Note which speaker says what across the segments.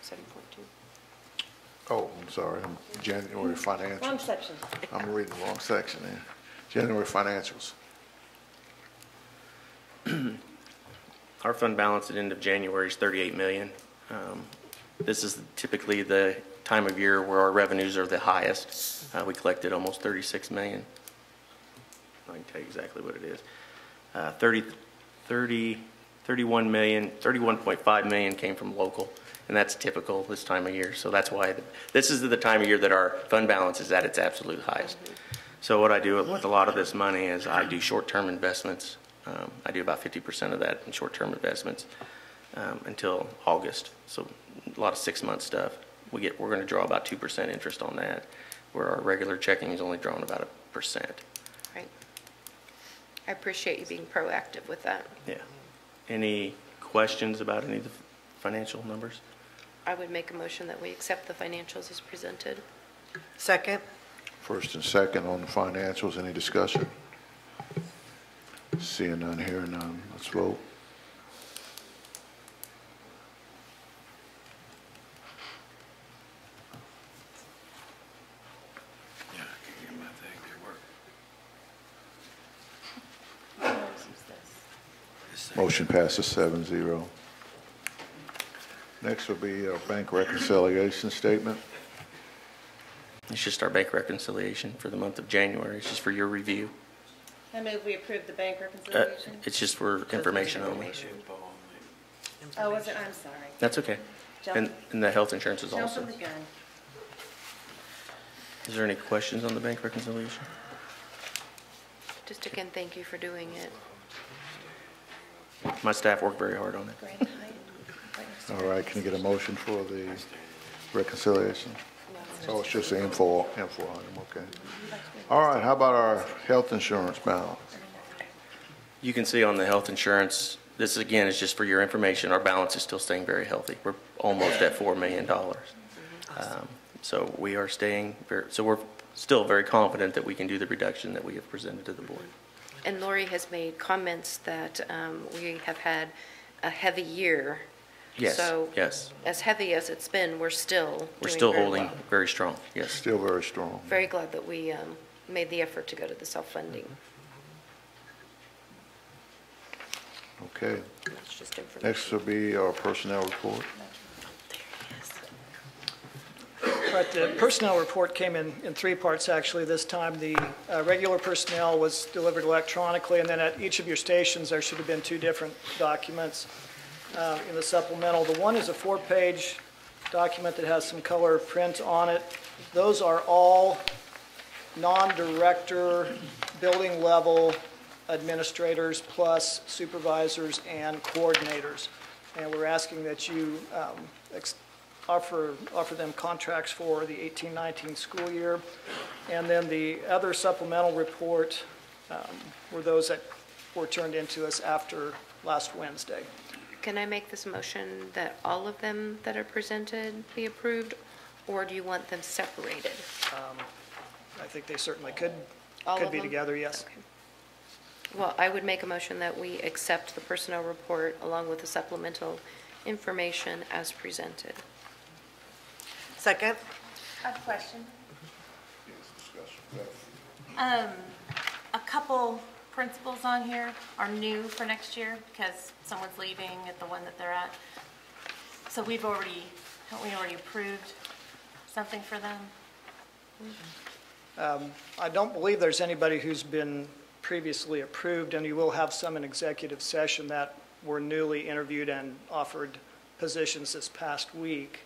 Speaker 1: seven point two.
Speaker 2: Oh, I'm sorry, I'm January
Speaker 1: Wrong
Speaker 2: financials.
Speaker 1: section.
Speaker 3: Um,
Speaker 2: I'm reading the wrong section there. January financials.
Speaker 3: Our fund balance at end of January is 38 million. Um, This is typically the time of year where our revenues are the highest. Uh, We collected almost 36 million. I can tell you exactly what it is. Uh, 30, 30, 31 million, 31.5 million came from local, and that's typical this time of year. So that's why, the- this is the time of year that our fund balance is at its absolute highest. So what I do with a lot of this money is I do short-term investments. Um, I do about 50% of that in short-term investments um, until August. So a lot of six-month stuff. We get, we're going to draw about 2% interest on that, where our regular checking is only drawing about a percent.
Speaker 1: Right. I appreciate you being proactive with that.
Speaker 3: Yeah. Any questions about any of the financial numbers?
Speaker 1: I would make a motion that we accept the financials as presented.
Speaker 4: Second?
Speaker 2: First and second on the financials, any discussion? Seeing none, hearing none, let's vote. Motion passes seven zero. Next will be our bank reconciliation statement.
Speaker 3: It's just our bank reconciliation for the month of January. It's just for your review.
Speaker 5: I move we approve the bank
Speaker 3: Uh,
Speaker 5: reconciliation.
Speaker 3: It's just for information only.
Speaker 5: Oh, was it, I'm sorry.
Speaker 3: That's okay. And, and the health insurance is
Speaker 5: Jump
Speaker 3: also.
Speaker 5: from the gun.
Speaker 3: Is there any questions on the bank reconciliation?
Speaker 1: Just again, thank you for doing it.
Speaker 3: My staff worked very hard on it.
Speaker 1: Grand Hyatt. Right next to
Speaker 2: All right, can you get a motion for the reconciliation? So it's just the info, info item, okay. All right, how about our health insurance balance?
Speaker 3: You can see on the health insurance, this again is just for your information, our balance is still staying very healthy. We're almost at $4 million. Um, So we are staying, ver- so we're still very confident that we can do the reduction that we have presented to the board.
Speaker 1: And Lori has made comments that um, we have had a heavy year.
Speaker 3: Yes,
Speaker 1: So
Speaker 3: yes.
Speaker 1: as heavy as it's been, we're still
Speaker 3: We're
Speaker 1: doing
Speaker 3: still
Speaker 1: very
Speaker 3: holding
Speaker 1: well.
Speaker 3: very strong, yes.
Speaker 2: Still very strong.
Speaker 1: Very glad that we um, made the effort to go to the self-funding.
Speaker 3: Mm-hmm.
Speaker 2: Okay,
Speaker 1: That's just information.
Speaker 2: next will be our personnel report.
Speaker 6: Right, the personnel report came in, in three parts, actually, this time. The uh, regular personnel was delivered electronically, and then at each of your stations, there should have been two different documents uh, in the supplemental. The one is a four-page document that has some color print on it. Those are all non-director, building-level administrators, plus supervisors and coordinators. And we're asking that you um, ex- offer, offer them contracts for the 18-19 school year. And then the other supplemental report um, were those that were turned into us after last Wednesday.
Speaker 1: Can I make this motion that all of them that are presented be approved, or do you want them separated?
Speaker 6: I think they certainly could,
Speaker 1: All
Speaker 6: could
Speaker 1: of
Speaker 6: be
Speaker 1: them?
Speaker 6: together, yes.
Speaker 1: Okay. Well, I would make a motion that we accept the personnel report along with the supplemental information as presented.
Speaker 4: Second?
Speaker 5: I have a question. Um, a couple principals on here are new for next year because someone's leaving at the one that they're at. So we've already, haven't we already approved something for them?
Speaker 6: I don't believe there's anybody who's been previously approved, and you will have some in executive session that were newly interviewed and offered positions this past week.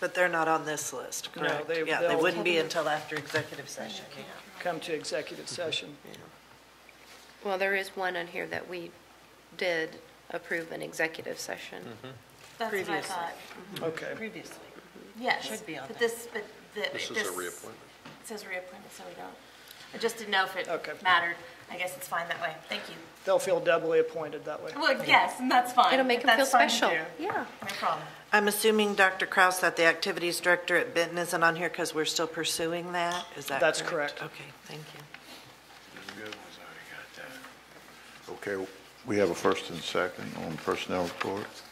Speaker 4: But they're not on this list,
Speaker 6: No,
Speaker 4: correct?
Speaker 6: they-
Speaker 4: Yeah, they
Speaker 6: they'll-
Speaker 4: wouldn't be until after executive session.
Speaker 6: Come to
Speaker 1: Mm-hmm.
Speaker 6: executive session.
Speaker 1: Well, there is one on here that we did approve an executive session.
Speaker 5: That's what I
Speaker 4: Previously.
Speaker 5: thought.
Speaker 6: Okay.
Speaker 4: Previously.
Speaker 5: Yes.
Speaker 4: Should be on
Speaker 5: But
Speaker 4: there.
Speaker 5: this, but the. This is a reappointment. It says reappointment, so we don't. I just didn't know if
Speaker 6: Okay.
Speaker 5: it mattered. I guess it's fine that way. Thank you.
Speaker 6: They'll feel doubly appointed that way.
Speaker 5: Well, yes, and that's fine.
Speaker 1: It'll make
Speaker 5: If
Speaker 1: them feel
Speaker 5: that's fine to
Speaker 1: special.
Speaker 5: do.
Speaker 1: Yeah.
Speaker 5: No problem.
Speaker 4: I'm assuming, Dr. Kraus, that the activities director at Benton isn't on here because we're still pursuing that? Is that correct?
Speaker 6: That's correct.
Speaker 4: Okay, thank you.
Speaker 2: Okay, we have a first and second on personnel report.